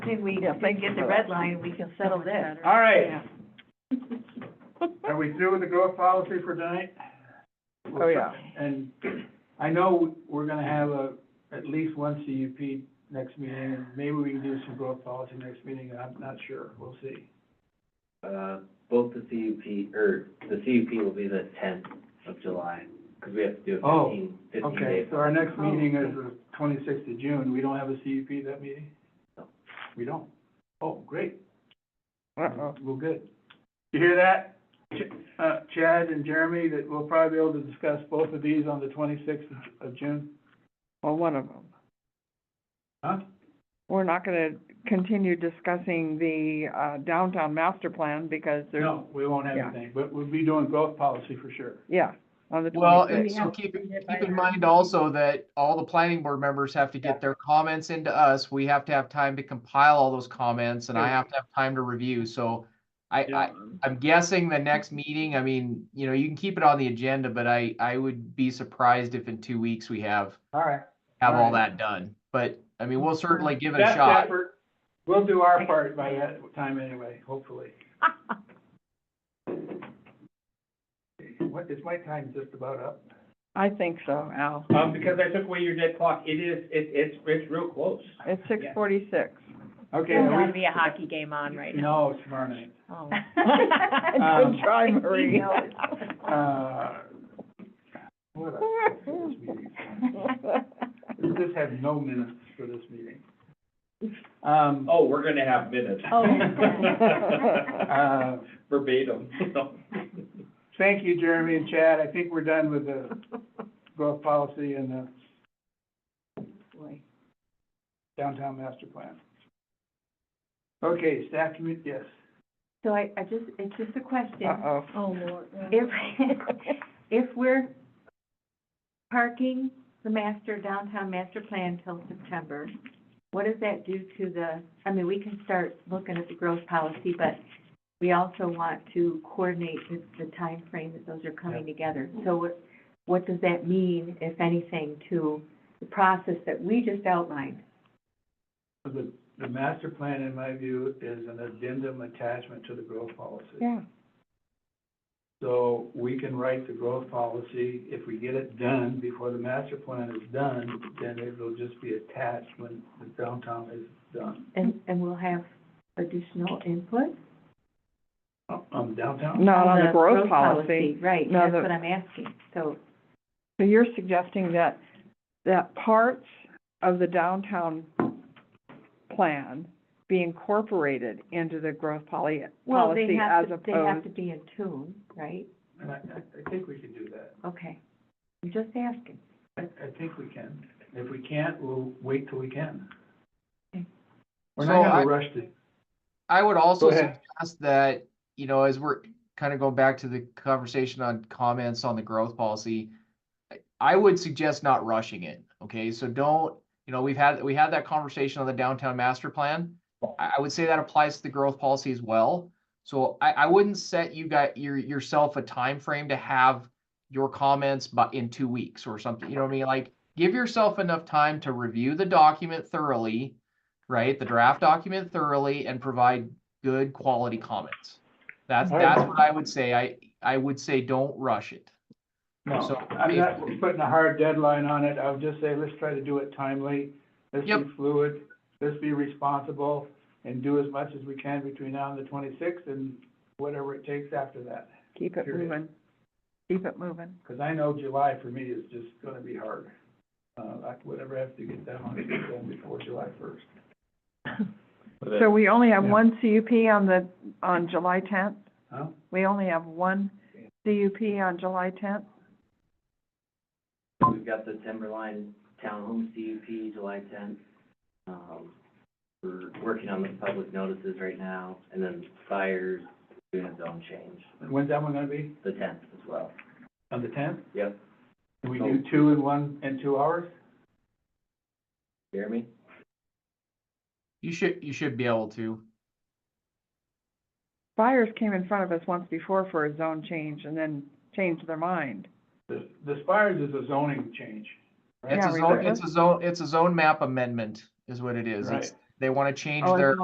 See, we, if we get the red line, we can settle this. All right, Yeah. are we through with the growth policy for tonight? Oh, yeah. And I know we're gonna have a, at least one CUP next meeting, and maybe we can do some growth policy next meeting, I'm not sure, we'll see. Uh, both the CUP, or the CUP will be the tenth of July, because we have to do a Oh, fifteen, fifteen Okay, day. so our next meeting is the twenty-sixth of June, we don't have a CUP that meeting? No. We don't? Oh, great, Uh-oh. well, good. You hear that? Ch- Uh, Chad and Jeremy, that we'll probably be able to discuss both of these on the twenty-sixth of June, Well, one of them. huh? We're not gonna continue discussing the uh, downtown master plan because there's, No, we won't have Yeah. anything, but we'll be doing growth policy for sure. yeah, on the Well, and- twenty-sixth. and We so have keep, to do it by keep in now. mind also that all the planning board members have to Yeah. get their comments into us. We have to have time to compile all those comments and I Sure. have to have time to review, so I, I, I'm guessing the next meeting, I mean, you know, you can keep it on the agenda, but I, I would be surprised if in two weeks we have, All right. have all Alright. that done. But, I mean, we'll certainly give it a Best shot. effort. We'll do our part by that time anyway, hopefully. What, is my time just about up? I think so, Al. Uh, Um, because I took away your dead clock, it is, it, it's, it's real close. It's six forty-six. Okay, There's are gotta we, be a hockey game on right now. no, it's tomorrow night. Oh. Um, Good try, He Marie. knows. Uh, what else is for this meeting? Does this have no minutes for this meeting? Um, Oh, we're gonna have minutes. Oh, yeah. uh, Verbatim, thank you, Jeremy and Chad. I think we're done with the growth policy and the Boy. downtown master plan. Okay, staff commu, yes. So I, I just, it's just a question. Uh-oh. Oh, Lord. If, if we're parking the master, downtown master plan till September, what does that do to the, I mean, we can start looking at the growth policy, but we also want to coordinate the, the timeframe that those are coming together. So what, what does that mean, if anything, to the process that we just outlined? The, the master plan, in my view, is an addendum attachment to the growth policy. Yeah, So we can write the growth policy, if we get it done before the master plan is done, then it'll just be attached when the downtown is done. And, and we'll have additional input? Um, downtown? not on the growth policy. Right, No, that's the- what I'm asking, so. So you're suggesting that, that parts of the downtown plan be incorporated into the growth poly, Well, they policy as have to, opposed. they have to be in tune, right? And I, I, I think we can do that. Okay. I'm just asking. I, I think we can. If we can't, we'll wait till we can. Okay. We're So not I- gonna rush to I would also Go ahead. suggest that, you know, as we're kind of going back to the conversation on comments on the growth policy, I- I would suggest not rushing it, okay? So don't, you know, we've had, we had that conversation on the downtown master plan. I, I would say that applies to the growth policy as well. So I, I wouldn't set you got your, yourself a time frame to have your comments but in two weeks or something, you know what I mean? Like, give yourself enough time to review the document thoroughly right? The draft document thoroughly and provide good quality comments. That's, All that's right. what I would say. I, I would say, don't rush it. No, So- I'm not putting a hard deadline on it, I would just say, let's try to do it timely, let's be Yep. fluid, let's be responsible, and do as much as we can between now and the twenty-sixth, and whatever it takes after that. Keep it Period. moving. Keep it moving. Because I know July for me is just gonna be hard. Uh, like, whatever I have to get done, I'll get it done before July first. So we only have Yeah. one CUP on the, on July tenth? Huh? We only have one CUP on July tenth? We've got the Timberline Townhome CUP, July tenth. Um, we're working on the public notices right now, and then fires, doing a zone change, When's that one gonna be? the tenth as well. On the tenth? Yep, Can we do two in one, in two hours? Jeremy? You should, you should be able to. Buyers came in front of us once before for a zone change and then changed their mind. The, the Spires is a zoning change. It's Yeah, a we zone, could. it's a zone, it's a zone map amendment is what it is. It's, they want to change Oh, and their